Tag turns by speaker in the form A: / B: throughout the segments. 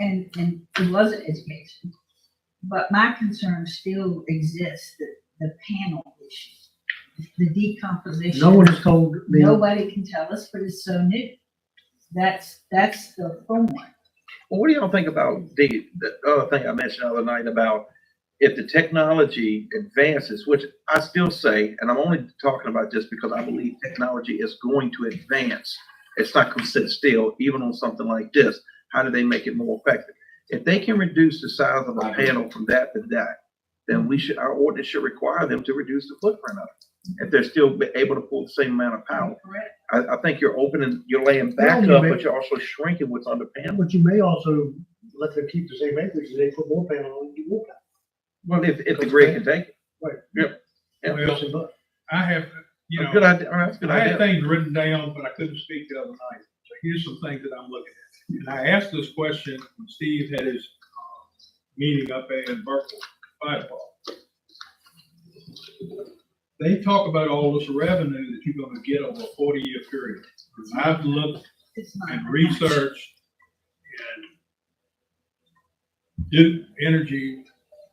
A: and, and it was an education. But my concern still exists, the, the panel issue, the decomposition.
B: No one has told me, well,
A: Nobody can tell us, but it's so new. That's, that's the format.
C: Well, what do y'all think about the, the other thing I mentioned the other night about if the technology advances, which I still say, and I'm only talking about this because I believe technology is going to advance. It's not going to sit still, even on something like this. How do they make it more effective? If they can reduce the size of a panel from that to that, then we should, our ordinance should require them to reduce the footprint of it. If they're still be- able to pull the same amount of power.
A: Correct.
C: I, I think you're opening, you're laying
B: Well,
C: back
B: you
C: up,
B: may-
C: but you're also shrinking what's under panel.
B: but you may also let them keep the same acreage, and they put more panel on, you won't.
C: Well, if, if the
B: Because
C: grid
B: they-
C: can take it.
B: Right.
C: Yep. Yeah.
D: Well, I have, you
C: Good
D: know,
C: idea, all right, that's a good
D: I had
C: idea.
D: things written down, but I couldn't speak the other night. So here's some things that I'm looking at. And I asked this question when Steve had his uh, meeting up in Berkeley, Fire Park. They talk about all this revenue that you're gonna get over a forty-year period. I've looked
A: It's not.
D: and research and Duke Energy,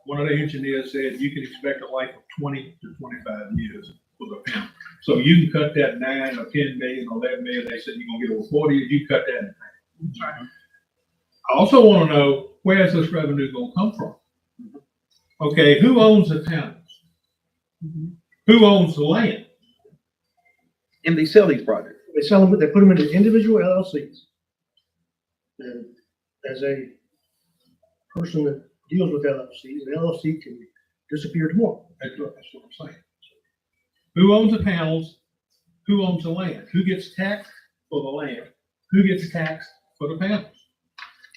D: one of the engineers said you can expect a life of twenty to twenty-five years for the panel. So you can cut that nine or ten million or eleven million, they said you're gonna get over forty, you cut that. in half. I also wanna know, where's this revenue gonna come from? Okay, who owns the towns? Who owns the land?
C: And they sell these projects.
B: They sell them, they put them into individual LLCs. And as a person that deals with LLCs, an LLC can disappear tomorrow.
D: That's what, that's what I'm saying. Who owns the panels? Who owns the land? Who gets taxed for the land? Who gets taxed for the panels?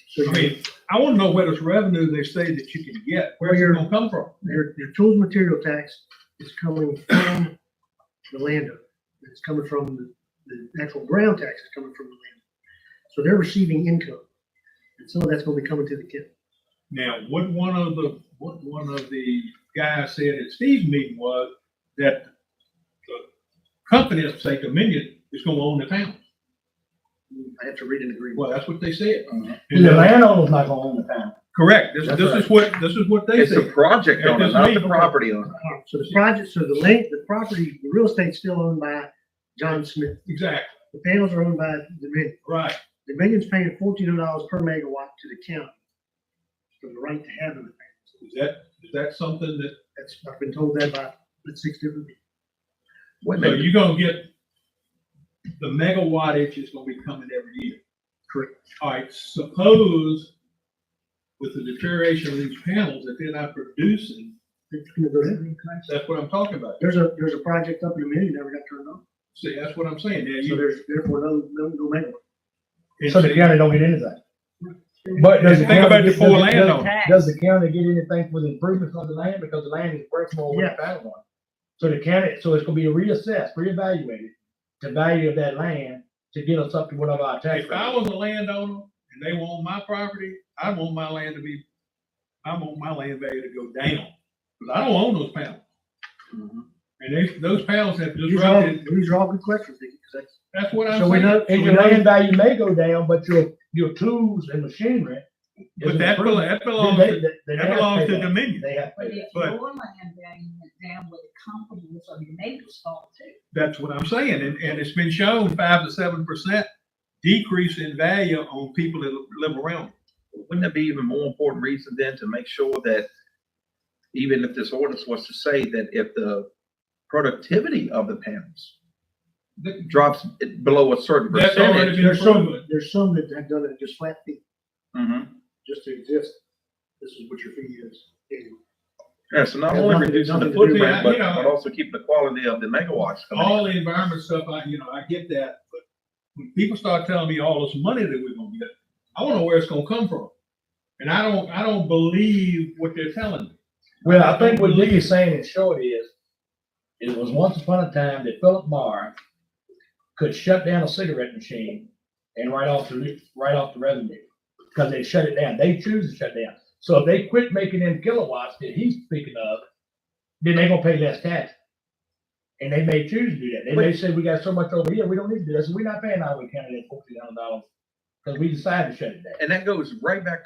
B: So
D: I
B: your,
D: mean, I wanna know where this revenue they say that you can get, where's it gonna come from?
B: your, your tools and material tax is coming from the landowner. It's coming from the, the actual ground tax is coming from the landowner. So they're receiving income. And some of that's gonna be coming to the kid.
D: Now, what one of the, what one of the guys said at Steve's meeting was that the company, let's say Dominion, is gonna own the panels.
B: I have to read an agreement.
D: Well, that's what they said.
E: Uh-huh. The landowner's not gonna own the panel.
D: Correct, this,
E: That's
D: this is what, this is what they
C: It's the
D: said.
C: project
D: Yeah,
C: owner,
D: just
C: not
D: leave
C: the
D: them.
C: property owner.
B: So the project, so the land, the property, the real estate's still owned by John Smith.
D: Exactly,
B: The panels are owned by Dominion.
D: right.
B: Dominion's paying fourteen hundred dollars per megawatt to the county for the right to have them.
D: Is that, is that something that
B: That's, I've been told that by the six different people.
C: Wait a
D: So
C: minute,
D: you're gonna get, the megawattage is gonna be coming every year. Correct. All right, suppose with the deterioration of these panels, that they're not producing,
B: It's gonna go ahead.
D: that's what I'm talking about.
B: There's a, there's a project up in Dominion never got turned on,
D: See, that's what I'm saying. Now,
B: so
D: you,
B: there's therefore no, no, no megawatt.
E: So the county don't get anything. But does the
D: Think
E: county?
D: about the poor
E: does-
D: landowner.
E: Does the county get anything for the improvements on the land, because the land is worth more than the
B: Yes.
E: panel one? So the county, so it's gonna be reassessed, reevaluated, the value of that land to get us up to whatever our tax
D: if I
E: rate.
D: was a landowner and they want my property, I want my land to be, I want my land value to go down. Cause I don't own those panels.
C: Mhm.
D: And they, those panels have
B: These are all,
D: disrupted,
B: these are all good questions, because that's,
D: that's what I'm saying.
E: So we know,
B: so
E: and
B: we
E: your
B: know-
E: land value may go down, but your, your tools and machinery. is
D: But that, belo-
E: improved.
D: that
E: They-
D: belongs,
E: they-
D: to-
E: they
D: that
E: have
D: belongs
E: pay
D: to
E: that.
D: Dominion.
E: They have.
A: But
E: pay that.
A: if your
D: But-
A: land value went down with the comparables of your neighbor's fault too.
D: That's what I'm saying, and, and it's been shown five to seven percent decrease in value on people that live around.
C: wouldn't that be even more important reason then to make sure that even if this ordinance was to say that if the productivity of the panels
D: That-
C: drops it below a certain
D: That's already
C: percentage.
D: been
B: there's some,
D: proven.
B: there's some that have done it just flat fee,
C: Mhm.
B: just to exist. This is what your fee is. anyway.
C: Yeah, so not
B: Has
C: only
B: nothing-
C: reducing the
B: nothing to do
D: with
C: footprint,
D: that,
C: but,
D: you know.
C: but also keeping the quality of the megawatts. coming in.
D: All the environment stuff, I, you know, I get that, but when people start telling me all this money that we're gonna get, I wanna know where it's gonna come from. And I don't, I don't believe what they're telling me.
E: Well, I think what Lee is saying in short is, it was once upon a time that Philip Marr could shut down a cigarette machine and write off the, write off the revenue, because they shut it down. They choose to shut down. So if they quit making them kilowatts that he's speaking of, then they gonna pay less tax. And they may choose to do that. They may say, we got so much over here, we don't need to do this, we're not paying Iowa County that fourteen hundred dollars, because we decided to shut it down.
C: And that goes right back